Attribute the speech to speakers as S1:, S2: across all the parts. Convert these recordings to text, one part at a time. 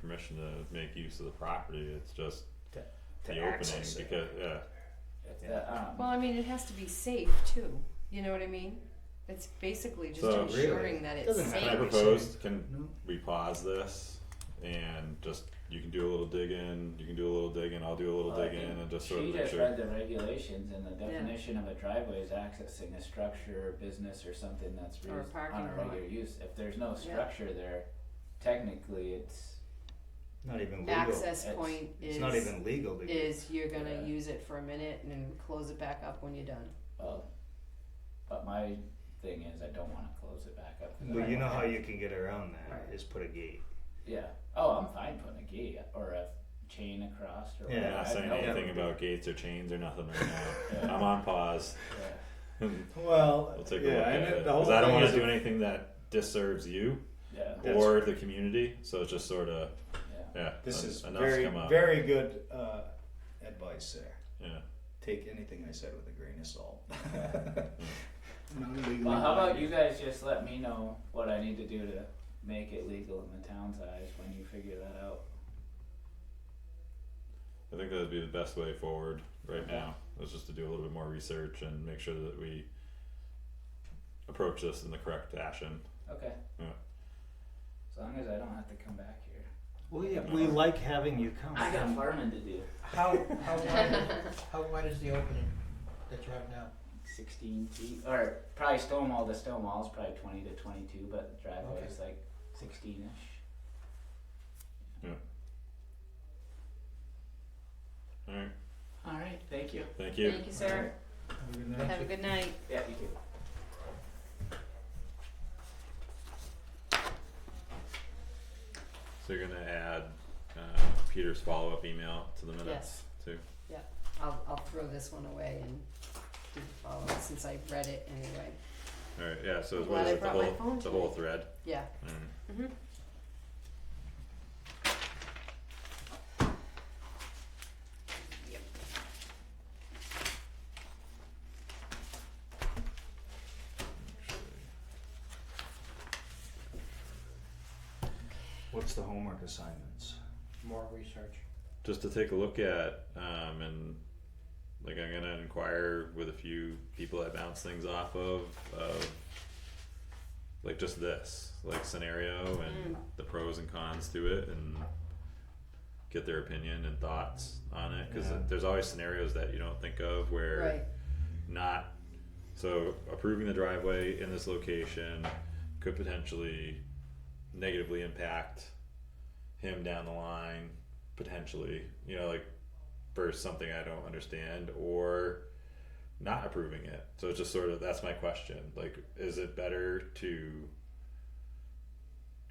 S1: permission to make use of the property, it's just
S2: to
S1: the opening
S2: access it.
S1: because, yeah,
S2: The, um,
S3: Well, I mean, it has to be safe too, you know what I mean? It's basically just
S1: So-
S3: ensuring that it's
S2: Doesn't have
S1: Can I
S2: Maybe.
S3: safe.
S2: to
S1: propose, can
S2: No.
S1: we pause this and just, you can do a little digging, you can do a little digging, I'll do a little
S4: Well, I
S1: digging
S4: think
S1: and just sort of
S4: uh, She
S1: make
S4: just
S1: sure.
S4: read the regulations and the definition of a driveway is accessing a structure or business or something that's
S3: Or a
S4: used on
S3: parking
S4: a
S3: lot.
S4: regular use. If there's no structure there, technically it's,
S2: not even legal.
S3: Access
S4: It's-
S3: point
S2: It's
S3: is,
S2: not even legal to
S3: is you're
S4: Yeah.
S3: gonna use it for a minute and then close it back up when you're done.
S4: well, but my thing is I don't wanna close it back up. 'cause I
S2: Well, you
S4: don't
S2: know how
S4: have-
S2: you can get around that
S3: Right.
S2: is put a gate.
S4: Yeah, oh, I'm fine putting a gate or a chain across or
S2: Yeah,
S4: whatever.
S1: I'm not
S4: I have
S1: saying
S4: no-
S1: anything about gates or chains or nothing right now,
S4: Yeah.
S1: I'm on pause,
S4: Yeah.
S2: Well,
S1: we'll take a look at it, cause I don't wanna do anything that disserves you
S4: Yeah,
S2: That's-
S1: or the community, so it's just sorta,
S4: yeah.
S1: yeah,
S5: This
S1: en-
S5: is
S1: enough's
S5: very,
S1: come up.
S5: very good uh, advice there.
S1: Yeah,
S5: Take anything I said with a grain of salt. Not legally
S4: Well, how about
S5: binding.
S4: you guys just let me know what I need to do to make it legal in the town's eyes when you figure that out?
S1: I think that'd be the best way forward right
S4: Okay.
S1: now, is just to do a little bit more research and make sure that we approach this in the correct fashion.
S4: Okay.
S1: Yeah.
S4: As long as I don't have to come back here.
S6: Well, yeah, we like having you come.
S4: I got farming to do.
S6: How, how wide, how wide is the opening that you have now?
S4: Sixteen feet, or probably stone wall, the stone wall's probably twenty to twenty-two, but the driveway
S6: Okay.
S4: is like sixteen-ish.
S1: Alright,
S4: Alright, thank you.
S1: thank you.
S3: Thank you, sir. Have a good night.
S4: Yeah, you too.
S1: So you're gonna add uh Peter's follow up email to the minutes
S3: Yes.
S1: too?
S3: I'll, I'll throw this one away and do the follow-up since I read it anyway.
S1: Alright, yeah, so what
S3: I'm glad
S1: is
S3: I
S1: it, the
S3: brought my
S1: whole,
S3: phone
S1: the whole
S3: tonight.
S1: thread?
S3: Yeah,
S1: Alright.
S3: mhm. Yep.
S2: What's the homework assignments?
S6: More research.
S1: Just to take a look at, um and like I'm gonna inquire with a few people I bounce things off of, of like just this, like scenario and the pros and cons to it and get their opinion and thoughts on it, cause
S2: Yeah.
S1: it- there's always scenarios that you don't think of where
S3: Right,
S1: not so approving the driveway in this location could potentially negatively impact him down the line potentially you know like for something i don't understand or not approving it so it's just sort of that's my question like is it better to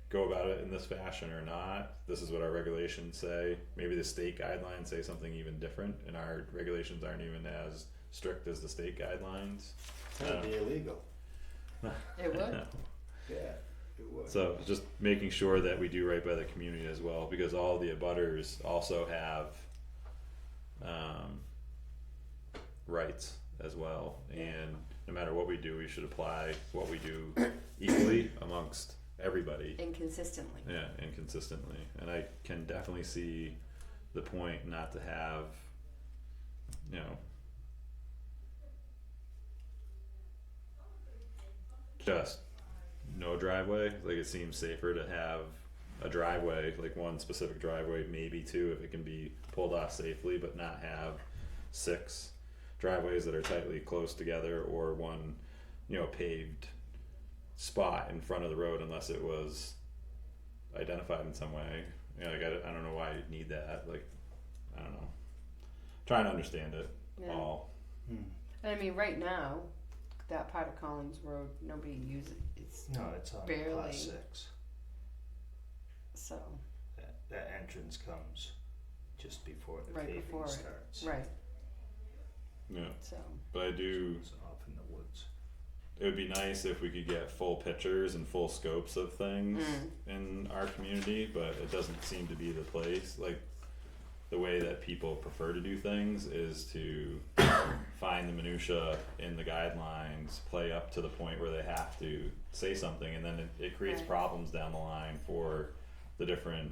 S1: go about it in this fashion or not this is what our regulations say maybe the state guidelines say something even different and our regulations aren't even as strict as the state guidelines
S5: That'd be illegal.
S3: it would,
S5: Yeah, it would.
S1: So just making sure that we do right by the community as well, because all the abutters also have um rights as well, and no matter what we do, we should apply what we do equally amongst everybody.
S3: inconsistently.
S1: Yeah, and consistently. And I can definitely see the point not to have, you know, just no driveway. Like it seems safer to have a driveway, like one specific driveway, maybe two if it can be pulled off safely, but not have six driveways that are tightly close together or one, you know, paved spot in front of the road unless it was identified in some way. You know, like I, I don't know why you'd need that. Like, I don't know. Trying to understand it
S3: Yeah.
S1: all.
S2: Hmm.
S3: And I mean, right now, that part of Collins Road, nobody uses it. It's
S2: No, it's on
S3: Barely.
S2: class six.
S3: so
S2: That, that entrance comes just before the
S3: Right
S2: paving
S3: before it.
S2: starts.
S3: right.
S1: Yeah,
S3: So
S1: but I do.
S2: It's off in the woods.
S1: It would be nice if we could get full pictures and full scopes of things
S3: Mm.
S1: in our community, but it doesn't seem to be the place. Like, the way that people prefer to do things is to find the minutia in the guidelines, play up to the point where they have to say something, and then it, it creates
S3: Right.
S1: problems down the line for the different